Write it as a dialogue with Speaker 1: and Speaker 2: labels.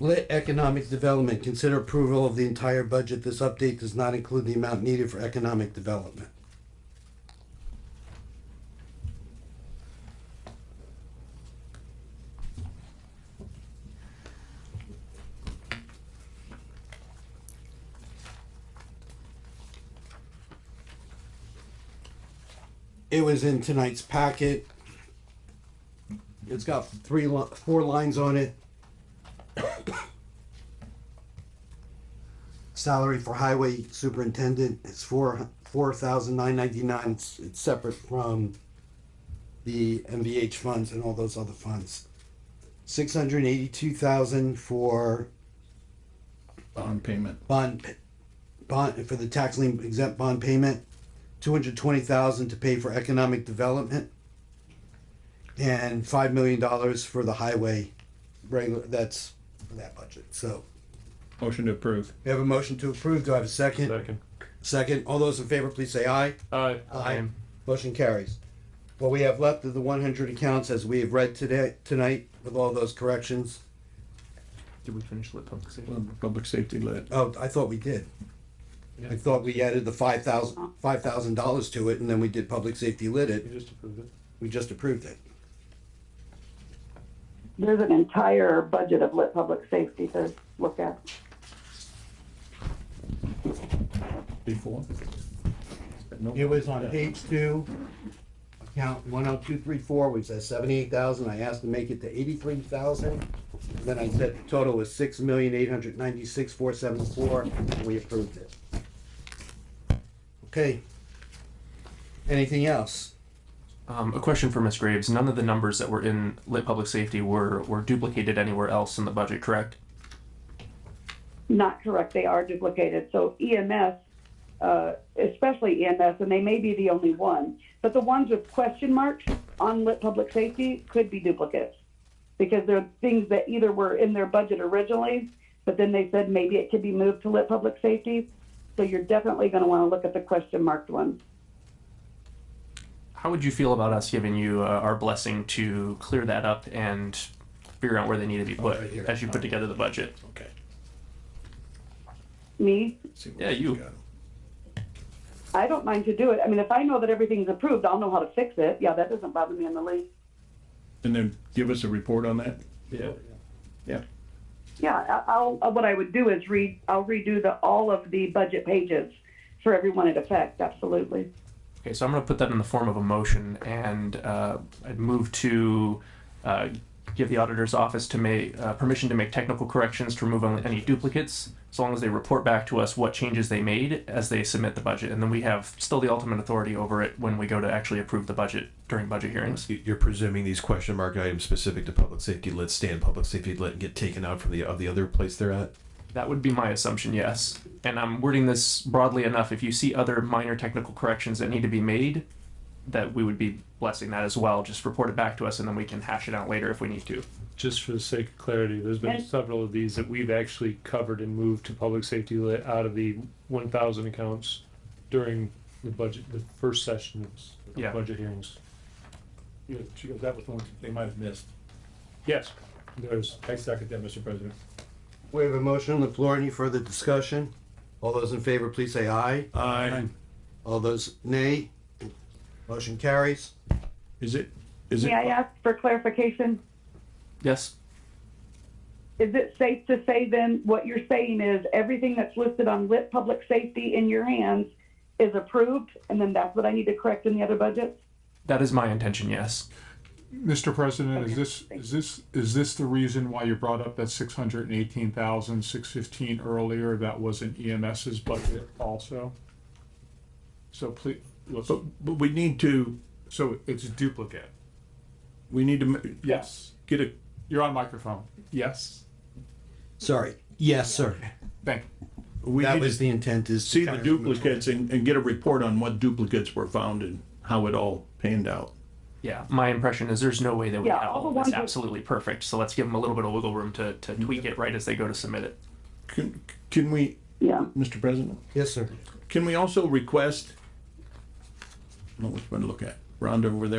Speaker 1: Lit Economic Development, consider approval of the entire budget. This update does not include the amount needed for economic development. It was in tonight's packet. It's got three, li- four lines on it. Salary for highway superintendent is four, four thousand nine ninety-nine. It's, it's separate from the MVH funds and all those other funds. Six hundred eighty-two thousand for
Speaker 2: bond payment.
Speaker 1: bond, p- bond, for the tax lien exempt bond payment, two hundred twenty thousand to pay for economic development, and five million dollars for the highway, regular, that's that budget, so.
Speaker 2: Motion to approve.
Speaker 1: We have a motion to approve, do I have a second?
Speaker 3: Second.
Speaker 1: Second, all those in favor, please say aye.
Speaker 3: Aye.
Speaker 1: Motion carries. What we have left of the one hundred accounts as we have read today, tonight, with all those corrections,
Speaker 3: Did we finish lit public safety?
Speaker 2: Public safety lit.
Speaker 1: oh, I thought we did. I
Speaker 3: Yeah.
Speaker 1: thought we added the five thousand, five thousand dollars to it, and then we did public safety lit it.
Speaker 3: You just approved it.
Speaker 1: We just approved it.
Speaker 4: There's an entire budget of lit public safety to look at.
Speaker 2: Before? No.
Speaker 1: It was on page two, account one oh two three four, which says seventy-eight thousand, I asked to make it to eighty-three thousand. Then I said the total was six million eight hundred ninety-six four seven four, and we approved it. Okay. Anything else?
Speaker 5: Um, a question for Ms. Graves. None of the numbers that were in lit public safety were, were duplicated anywhere else in the budget, correct?
Speaker 4: Not correct, they are duplicated. So EMS, uh, especially EMS, and they may be the only one, but the ones with question marks on lit public safety could be duplicates. Because they're things that either were in their budget originally, but then they said maybe it could be moved to lit public safety. So you're definitely gonna wanna look at the question marked ones.
Speaker 5: How would you feel about us giving you uh, our blessing to clear that up and figure out where they need to be put
Speaker 2: Oh, right here.
Speaker 5: as you put together the budget?
Speaker 2: Okay.
Speaker 4: Me,
Speaker 2: See what
Speaker 5: Yeah,
Speaker 2: else
Speaker 5: you.
Speaker 2: got.
Speaker 4: I don't mind to do it. I mean, if I know that everything's approved, I'll know how to fix it. Yeah, that doesn't bother me in the least.
Speaker 2: And then give us a report on that?
Speaker 3: Yeah.
Speaker 2: Yeah.
Speaker 4: Yeah, I- I'll, uh, what I would do is read, I'll redo the, all of the budget pages for everyone it affects, absolutely.
Speaker 5: Okay, so I'm going to put that in the form of a motion, and uh, I'd move to uh, give the auditor's office to make uh, permission to make technical corrections to remove only any duplicates, as long as they report back to us what changes they made as they submit the budget, and then we have still the ultimate authority over it when we go to actually approve the budget during budget hearings.
Speaker 6: You- You're presuming these question mark items specific to public safety lit stay in public safety lit and get taken out from the of the other place they're at.
Speaker 5: That would be my assumption, yes. And I'm wording this broadly enough. If you see other minor technical corrections that need to be made, that we would be blessing that as well. Just report it back to us, and then we can hash it out later if we need to.
Speaker 3: Just for the sake of clarity, there's been
Speaker 4: And-
Speaker 3: several of these that we've actually covered and moved to public safety lit out of the one thousand accounts during the budget, the first sessions, of
Speaker 5: Yeah.
Speaker 3: budget hearings.
Speaker 7: Yeah, she goes, that was the one they might have missed.
Speaker 3: Yes.
Speaker 7: There's, I second that, Mr. President.
Speaker 1: We have a motion on the floor, any further discussion? All those in favor, please say aye.
Speaker 2: Aye.
Speaker 1: All those nay? Motion carries.
Speaker 2: Is it, is it?
Speaker 4: May I ask for clarification?
Speaker 5: Yes?
Speaker 4: Is it safe to say then, what you're saying is everything that's listed on lit public safety in your hands is approved, and then that's what I need to correct in the other budgets?
Speaker 5: That is my intention, yes.
Speaker 7: Mr. President,
Speaker 4: Okay,
Speaker 7: is this,
Speaker 4: thank
Speaker 7: is this, is this the reason why you brought up that six hundred and eighteen thousand, six fifteen earlier, that was in EMS's budget also? So please, let's,
Speaker 2: But, but we need to,
Speaker 7: so it's a duplicate,
Speaker 2: we need to m-
Speaker 7: yes,
Speaker 2: get a,
Speaker 7: you're on microphone, yes,
Speaker 1: Sorry, yes, sir.
Speaker 7: thank you.
Speaker 2: we
Speaker 1: That
Speaker 2: need
Speaker 1: was
Speaker 2: to
Speaker 1: the intent is. to
Speaker 2: see the
Speaker 1: kind of remove-
Speaker 2: duplicates and, and get a report on what duplicates were found and how it all panned out.
Speaker 5: Yeah, my impression is there's no way that we
Speaker 4: Yeah,
Speaker 5: have
Speaker 4: all
Speaker 5: all
Speaker 4: the
Speaker 5: of this
Speaker 4: ones that-
Speaker 5: absolutely perfect. So let's give them a little bit of wiggle room to, to tweak it right as they go to submit it.
Speaker 2: Can, can we,
Speaker 4: Yeah.
Speaker 2: Mr. President?
Speaker 1: Yes, sir.
Speaker 2: Can we also request? I don't know which one to look at. Rhonda over there.